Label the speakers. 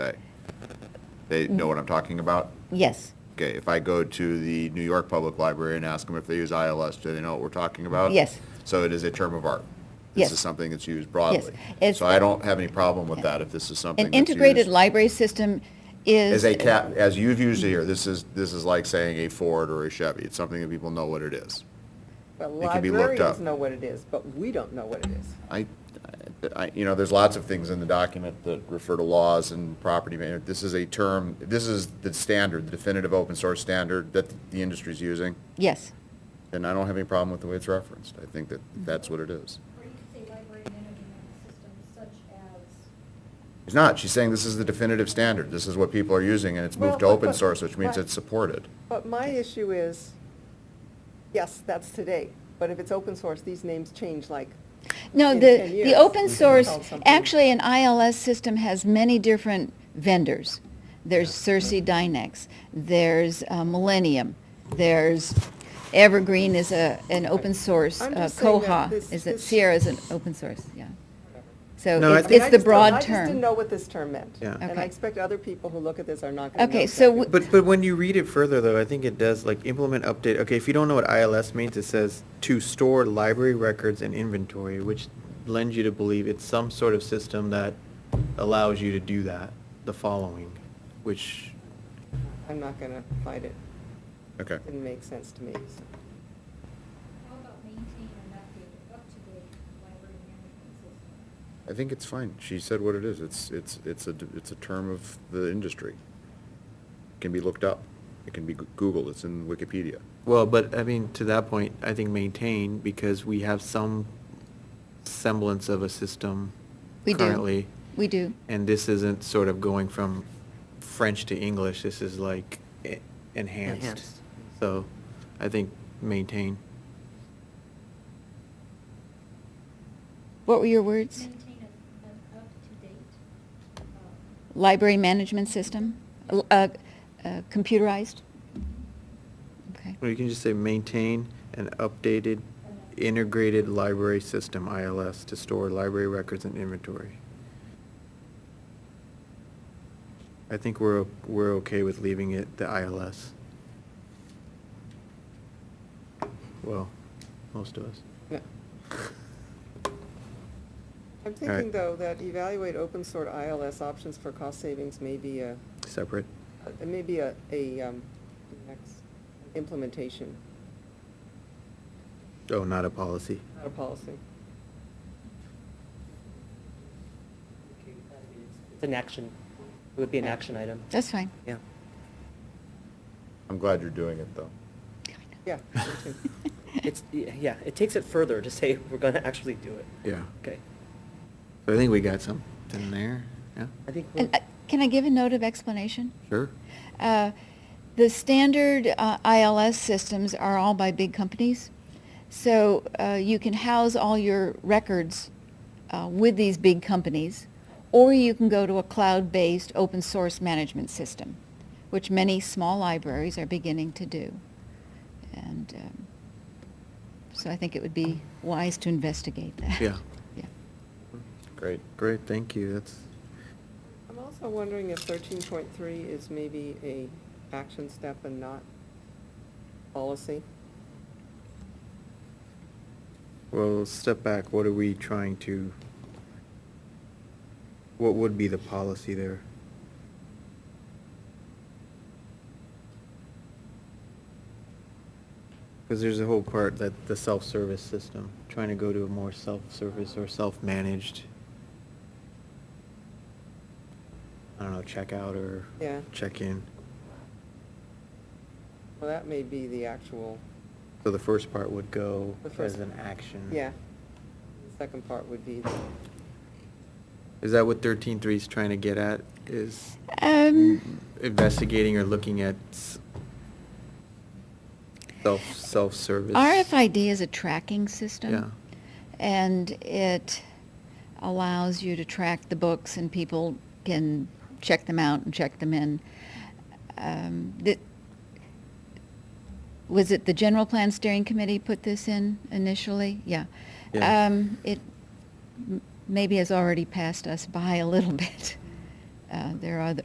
Speaker 1: They know what I'm talking about?
Speaker 2: Yes,
Speaker 1: Okay, if I go to the New York Public Library and ask them if they use ILS, do they know what we're talking about?
Speaker 2: Yes.
Speaker 1: So it is a term of art.
Speaker 2: Yes.
Speaker 1: This is something that's used broadly.
Speaker 2: It's-
Speaker 1: So I don't have any problem with that if this is something
Speaker 2: an
Speaker 1: that's
Speaker 2: integrated
Speaker 1: used
Speaker 2: library system is.
Speaker 1: As a cap, as you've used it here, this is, this is like saying a Ford or a Chevy. It's something that people know what it is.
Speaker 3: Well,
Speaker 1: It can be looked
Speaker 3: librarians
Speaker 1: up.
Speaker 3: know what it is, but we don't know what it is.
Speaker 1: I, I, you know, there's lots of things in the document that refer to laws and property. ma- This is a term, this is the standard, the definitive open source standard that the industry's using,
Speaker 2: Yes,
Speaker 1: and I don't have any problem with the way it's referenced. I think that
Speaker 3: Mm-hmm.
Speaker 1: that's what it is.
Speaker 4: Or you could say library management systems such as,
Speaker 1: It's not, she's saying this is the definitive standard. This is what people are using, and it's moved to
Speaker 3: Well, but-
Speaker 1: open
Speaker 3: but-
Speaker 1: source, which means
Speaker 3: but-
Speaker 1: it's supported.
Speaker 3: But my issue is, yes, that's today, but if it's open source, these names change like,
Speaker 2: no,
Speaker 3: In
Speaker 2: the,
Speaker 3: 10
Speaker 2: the
Speaker 3: years,
Speaker 2: open
Speaker 3: we can
Speaker 2: source,
Speaker 3: call something-
Speaker 2: actually, an ILS system has many different vendors. There's Cersei Dynex, there's uh, Millennium, there's Evergreen is a, an open source,
Speaker 3: I'm
Speaker 2: uh,
Speaker 3: just saying that
Speaker 2: Koha
Speaker 3: this-
Speaker 2: is, a-
Speaker 3: this-
Speaker 2: Sierra is an open source, yeah. So
Speaker 1: No, I
Speaker 2: it's,
Speaker 3: I mean,
Speaker 2: it's
Speaker 3: I
Speaker 2: the
Speaker 3: just don't-
Speaker 2: broad
Speaker 3: I just didn't
Speaker 2: term.
Speaker 3: know what this term meant.
Speaker 5: Yeah.
Speaker 3: And
Speaker 2: Okay.
Speaker 3: I expect other people who look at this are not going to know.
Speaker 2: Okay, so
Speaker 3: exactly
Speaker 2: we-
Speaker 3: what-
Speaker 5: But, but when you read it further, though, I think it does, like, implement update, okay, if you don't know what ILS means, it says to store library records and inventory, which lends you to believe it's some sort of system that allows you to do that, the following, which,
Speaker 3: I'm not going to fight it.
Speaker 1: Okay.
Speaker 3: Didn't make sense to me. so.
Speaker 4: how about maintain and update up-to-date library management system?
Speaker 1: I think it's fine. She said what it is. It's, it's, it's a, it's a term of the industry. It can be looked up. It can be goo- Googled. It's in Wikipedia.
Speaker 5: well, but, I mean, to that point, I think maintain, because we have some semblance of a system
Speaker 2: We
Speaker 5: currently.
Speaker 2: do, we do.
Speaker 5: And this isn't sort of going from French to English, this is like e- enhanced.
Speaker 3: Enhanced.
Speaker 5: So I think maintain.
Speaker 2: What were your words?
Speaker 4: Maintain a- an up-to-date, uh,
Speaker 2: Library management system, L- uh, uh, computerized? Okay.
Speaker 5: Or you can just say maintain an updated integrated library system, ILS, to store library records and inventory. I think we're, o- we're okay with leaving it the ILS. Well, most of us.
Speaker 3: No. I'm
Speaker 5: All right.
Speaker 3: thinking, though, that evaluate open source ILS options for cost savings may be a,
Speaker 5: Separate.
Speaker 3: a- may be a, a, um, next implementation,
Speaker 5: Oh, not a policy.
Speaker 3: not a policy.
Speaker 6: It's an action, it would be an action item,
Speaker 2: That's fine.
Speaker 6: yeah.
Speaker 1: I'm glad you're doing it, though.
Speaker 3: Yeah, me too.
Speaker 6: It's, yeah, it takes it further to say we're going to actually do it.
Speaker 5: Yeah.
Speaker 6: Okay,
Speaker 5: So I think we got something there, yeah?
Speaker 6: I think we're,
Speaker 2: And, uh, Can I give a note of explanation?
Speaker 5: Sure.
Speaker 2: Uh, The standard uh, ILS systems are all by big companies. So uh, you can house all your records uh, with these big companies, or you can go to a cloud-based open source management system, which many small libraries are beginning to do. And um, so I think it would be wise to investigate that.
Speaker 5: Yeah.
Speaker 2: Yeah.
Speaker 1: Great.
Speaker 5: Great, thank you, that's,
Speaker 3: I'm also wondering if thirteen point three is maybe a action step and not policy.
Speaker 5: well, step back, what are we trying to, what would be the policy there? Because there's a whole part that the self-service system, trying to go to a more self-service or self-managed, I don't know, checkout or
Speaker 3: Yeah.
Speaker 5: check-in.
Speaker 3: Well, that may be the actual,
Speaker 5: So the first part would go
Speaker 3: The first-
Speaker 5: as an action.
Speaker 3: yeah. The Second part would be, the-
Speaker 5: Is that what thirteen three is trying to get at, is Mm-hmm.
Speaker 2: Um,
Speaker 5: investigating or looking at s- self, self-service?
Speaker 2: RFID is a tracking system.
Speaker 5: Yeah.
Speaker 2: And it allows you to track the books and people can check them out and check them in. Um, the- Was it the General Plan Steering Committee put this in initially? Yeah.
Speaker 5: Yeah.
Speaker 2: Um, It m- maybe has already passed us by a little bit. Uh, There are